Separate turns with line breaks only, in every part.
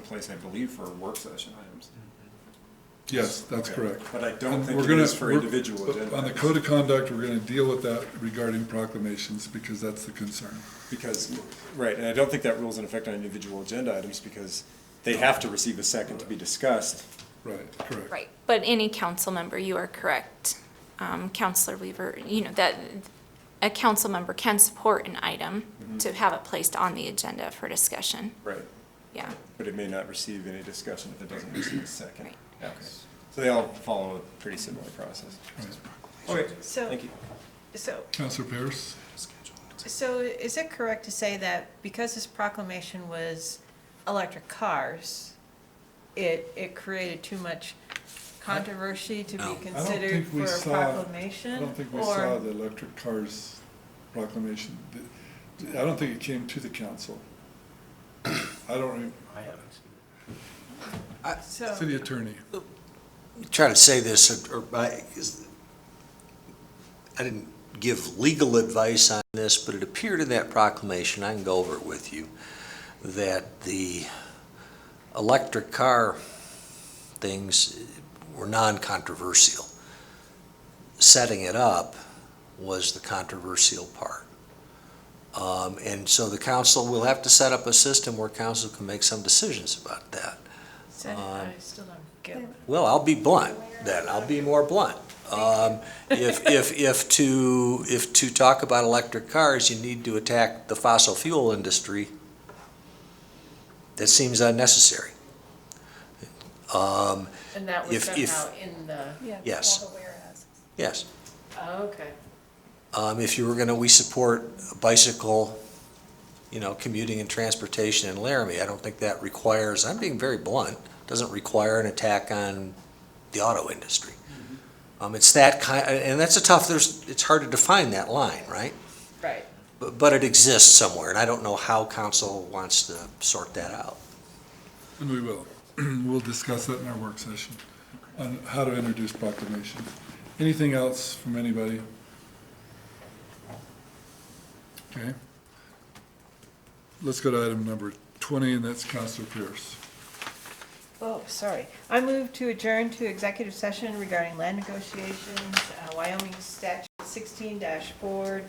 place, I believe, for work session items.
Yes, that's
Okay.
correct.
But I don't
And
think
we're
it
gonna-
is for
we're-
individual
but
agenda.
On the
items,
code of conduct, we're gonna deal with that regarding proclamations, because that's the concern.
Because, right, and I don't think that rule's in effect on individual agenda items because they have to receive a second to be discussed.
Right, correct.
Right, but any council member, you are correct. Um, Counselor Weaver, you know, that, a council member can support an item to have it placed on the agenda for discussion,
Right.
yeah.
But it may not receive any discussion if it doesn't receive a second.
Right.
Okay. So they all follow a pretty similar process. Okay,
So,
thank you.
so,
Counselor Pierce?
so is it correct to say that because this proclamation was electric cars, it, it created too much controversy to be
I don't
considered
think
for
we
a
saw.
proclamation?
I don't think we
Or-
saw the electric cars proclamation. I don't think it came to the council. I don't, re-
I haven't seen it.
So,
city attorney.
try to say this, or, or I, is- I didn't give legal advice on this, but it appeared in that proclamation, I can go over it with you, that the electric car things were non-controversial. Setting it up was the controversial part. Um, and so the council will have to set up a system where council can make some decisions about that.
so
Um,
I still don't get it.
Well, I'll be blunt then. I'll be more blunt. Um, if, if, if to, if to talk about electric cars, you need to attack the fossil fuel industry, that seems unnecessary. Um,
And that was
If- if-
somehow in the,
yes, yes.
oh, okay.
Um, if you were gonna, we support bicycle, you know, commuting and transportation in Laramie. I don't think that requires, I'm being very blunt, doesn't require an attack on the auto industry. Um, it's that kind, and that's a tough, there's, it's hard to define that line, right?
Right.
But, but it exists somewhere, and I don't know how council wants to sort that out.
And we will. We'll discuss that in our work session on how to introduce proclamations. Anything else from anybody? Okay. Let's go to item number 20, and that's Counselor Pierce.
Oh, sorry. I move to adjourn to executive session regarding land negotiations, uh, Wyoming statute sixteen four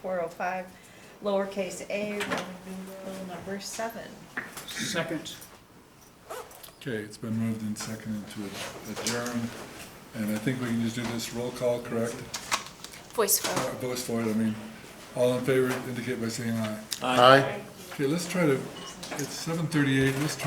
four oh five, lowercase a, Roman numeral number seven.
Second.
Okay, it's been moved and seconded to adjourn, and I think we can just do this roll call, correct?
Voice vote.
Uh, Voice for it, I mean, all in favor indicate by saying aye.
Aye.
Okay, let's try to, it's 7:38, let's try